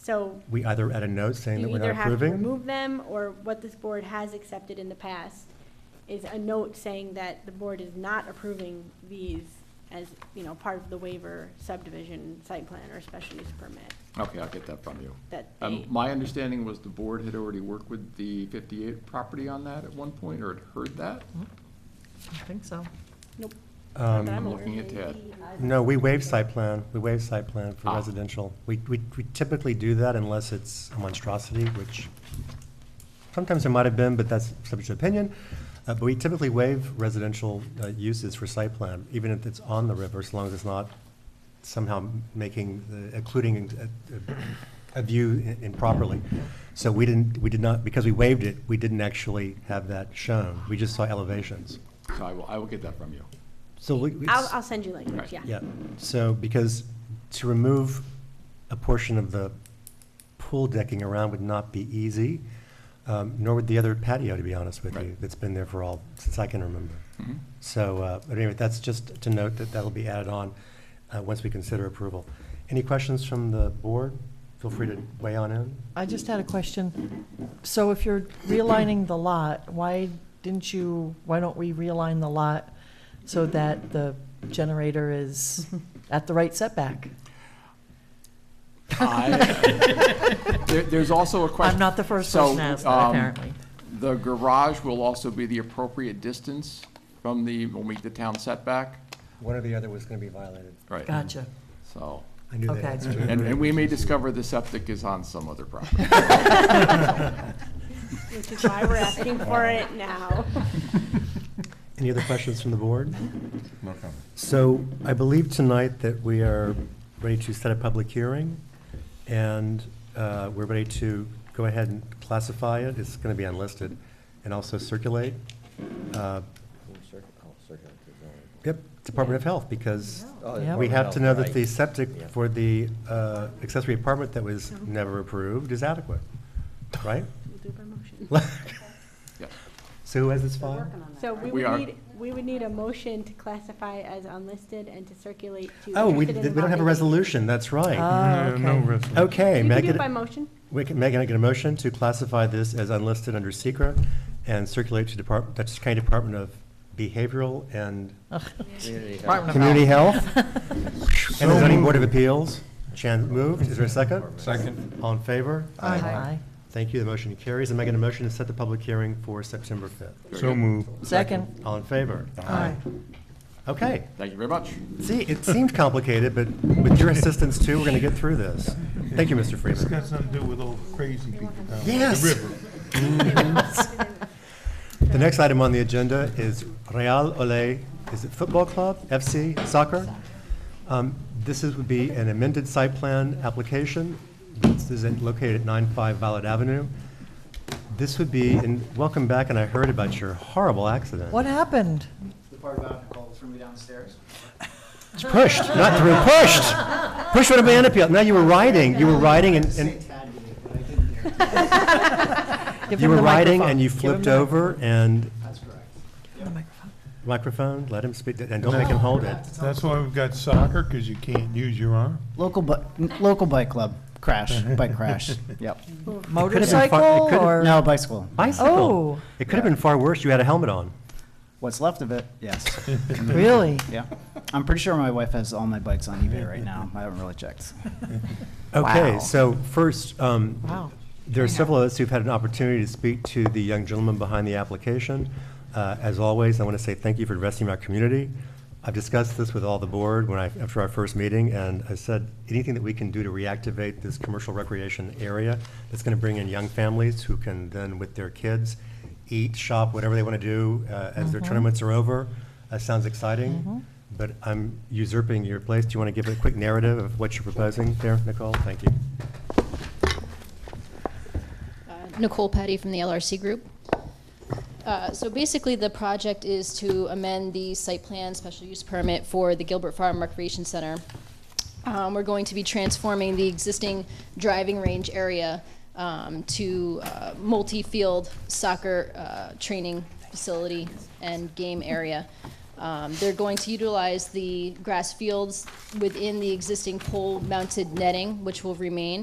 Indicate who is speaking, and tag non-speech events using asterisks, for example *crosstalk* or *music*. Speaker 1: So
Speaker 2: We either add a note saying that
Speaker 1: you
Speaker 2: we're
Speaker 1: either
Speaker 2: not
Speaker 1: have to
Speaker 2: approving.
Speaker 1: remove them, or what this board has accepted in the past is a note saying that the board is not approving these as, you know, part of the waiver subdivision, site plan, or special use permit.
Speaker 3: Okay, I'll get that from you.
Speaker 1: That
Speaker 3: Um,
Speaker 1: they-
Speaker 3: My understanding was the board had already worked with the 58 property on that at one point, or had heard that?
Speaker 4: I think so.
Speaker 1: Nope.
Speaker 2: Um,
Speaker 1: That I'm
Speaker 3: I'm
Speaker 1: aware
Speaker 3: looking
Speaker 1: of.
Speaker 3: at Ted.
Speaker 2: No, we waive site plan, we waive site plan for
Speaker 3: Ah.
Speaker 2: residential. We, we we typically do that unless it's a monstrosity, which sometimes it might have been, but that's subject to opinion. Uh, But we typically waive residential uh, uses for site plan, even if it's on the river, as long as it's not somehow making, the- occluding a- a a view i- improperly. So we didn't, we did not, because we waived it, we didn't actually have that shown. We just saw elevations.
Speaker 3: So I will, I will get that from you.
Speaker 2: So we. we-
Speaker 1: I'll, I'll send you language,
Speaker 3: Right.
Speaker 1: yeah.
Speaker 2: yeah, so because to remove a portion of the pool decking around would not be easy, um, nor would the other patio, to be honest with you,
Speaker 3: Right.
Speaker 2: that's been there for all, since I can remember.
Speaker 4: Mm-hmm.
Speaker 3: Mhm.
Speaker 2: So, uh, but anyway, that's just to note that that'll be added on uh, once we consider approval. Any questions from the board? Feel free to weigh on in.
Speaker 4: I just had a question. So if you're realigning the lot, why didn't you, why don't we realign the lot so that the generator *laughs* is at the right setback? *laughs*
Speaker 3: I- There- There's also a question.
Speaker 4: I'm not the first
Speaker 3: So,
Speaker 4: person to ask that,
Speaker 3: um,
Speaker 4: apparently.
Speaker 3: The garage will also be the appropriate distance from the, will meet the town setback?
Speaker 2: One or the other was going to be violated.
Speaker 3: Right.
Speaker 4: Gotcha.
Speaker 3: So,
Speaker 2: I knew that
Speaker 4: Okay.
Speaker 2: answer.
Speaker 3: and, and we
Speaker 2: *laughs*
Speaker 3: may discover the septic is on some other
Speaker 5: *laughs*
Speaker 3: property.
Speaker 1: *laughs* Which is why we're asking
Speaker 2: *laughs*
Speaker 1: for it now.
Speaker 2: Any other questions from the board? No comment. So I believe tonight that we are ready to set a public hearing, and uh, we're ready to go ahead and classify it. It's going to be unlisted, and also circulate. uh, Yep, Department of Health, because
Speaker 4: Yeah.
Speaker 2: we have to know that the septic for the uh, accessory apartment that was never approved is adequate, right? *laughs*
Speaker 1: We'll do it by motion.
Speaker 3: Yes.
Speaker 2: So who has this file?
Speaker 1: So we
Speaker 3: We
Speaker 1: would
Speaker 3: are-
Speaker 1: need, we would need a motion to classify as unlisted and to circulate to.
Speaker 2: Oh, we,
Speaker 1: interested
Speaker 2: we don't
Speaker 1: involved
Speaker 2: have a
Speaker 1: entities.
Speaker 2: resolution, that's right.
Speaker 4: Oh, okay.
Speaker 2: Okay,
Speaker 1: You can do
Speaker 2: may I get,
Speaker 1: it by
Speaker 2: a- *laughs*
Speaker 1: motion.
Speaker 2: we can, Megan, I get a motion to classify this as unlisted under secret and circulate to Department, Dutchess County Department of Behavioral and
Speaker 4: *laughs* Department of
Speaker 2: Community
Speaker 4: Health.
Speaker 2: Health and the Zoning Board of Appeals. Chan moved, is there a second? Second. All in favor?
Speaker 4: Aye.
Speaker 2: Thank you, the motion carries, and may I get a motion to set the public hearing for September fifth?
Speaker 3: Very
Speaker 5: So
Speaker 3: good.
Speaker 5: moved.
Speaker 4: Second.
Speaker 2: All in favor?
Speaker 4: Aye.
Speaker 2: Okay,
Speaker 3: Thank you very much.
Speaker 2: see, it seemed complicated, but with your assistance too, we're gonna get through this. Thank you, Mr.
Speaker 5: It's
Speaker 2: Freeman.
Speaker 5: got something to do with all the crazy people down at
Speaker 2: Yes.
Speaker 5: the river.
Speaker 2: Mm-hmm. *laughs* Mm.
Speaker 1: *laughs*
Speaker 2: The next item on the agenda is Real Olay, is it football club, FC, soccer? Um, This is, would be an amended site plan application. This is in- located at 95 Violet Avenue. This would be, and welcome back, and I heard about your horrible accident.
Speaker 4: What happened?
Speaker 6: The part about Nicole threw me downstairs.
Speaker 2: It's Pushed, not through, pushed! Pushed with a banana peel. No, you were riding, you were riding and-
Speaker 6: Say
Speaker 2: and,
Speaker 6: Tad with it, but I didn't hear. it.
Speaker 4: Give
Speaker 2: you
Speaker 4: him
Speaker 2: were
Speaker 4: the
Speaker 2: riding
Speaker 4: microphone.
Speaker 2: and you
Speaker 4: Give him
Speaker 2: flipped
Speaker 4: the-
Speaker 2: over and,
Speaker 6: That's correct.
Speaker 4: the microphone.
Speaker 2: microphone, let him speak, and don't make him hold it.
Speaker 4: Oh.
Speaker 5: That's why we've got soccer, because you can't use your arm.
Speaker 6: Local bu, local bike club, crash, bike crash, yep.
Speaker 2: could've been
Speaker 4: Motorcycle
Speaker 2: far- it could've-
Speaker 4: or?
Speaker 6: No, bicycle.
Speaker 2: Bicycle.
Speaker 4: Oh.
Speaker 2: It could have been far worse. You had a helmet on.
Speaker 6: What's left of it, yes, *laughs*
Speaker 4: Really?
Speaker 6: yeah. I'm pretty sure my wife has all my bikes on eBay right now. I haven't really checked.
Speaker 2: Okay,
Speaker 6: Wow.
Speaker 2: so first, um,
Speaker 4: Wow.
Speaker 2: there are several of us who've had an opportunity to speak to the young gentleman behind the application. Uh, as always, I want to say thank you for investing in our community. I've discussed this with all the board when I, after our first meeting, and I said anything that we can do to reactivate this commercial recreation area that's going to bring in young families who can then, with their kids, eat, shop, whatever they want to do uh, as their tournaments are over. That sounds exciting, but I'm usurping your place. Do you want to give a quick narrative of what you're proposing there, Nicole? Thank you.
Speaker 7: Uh, Nicole Petty from the LRC Group. Uh, So basically, the project is to amend the site plan special use permit for the Gilbert Farm Recreation Center. Um, We're going to be transforming the existing driving range area um, to uh, multi-field soccer uh, training facility and game area. Um, They're going to utilize the grass fields within the existing pole-mounted netting, which will remain,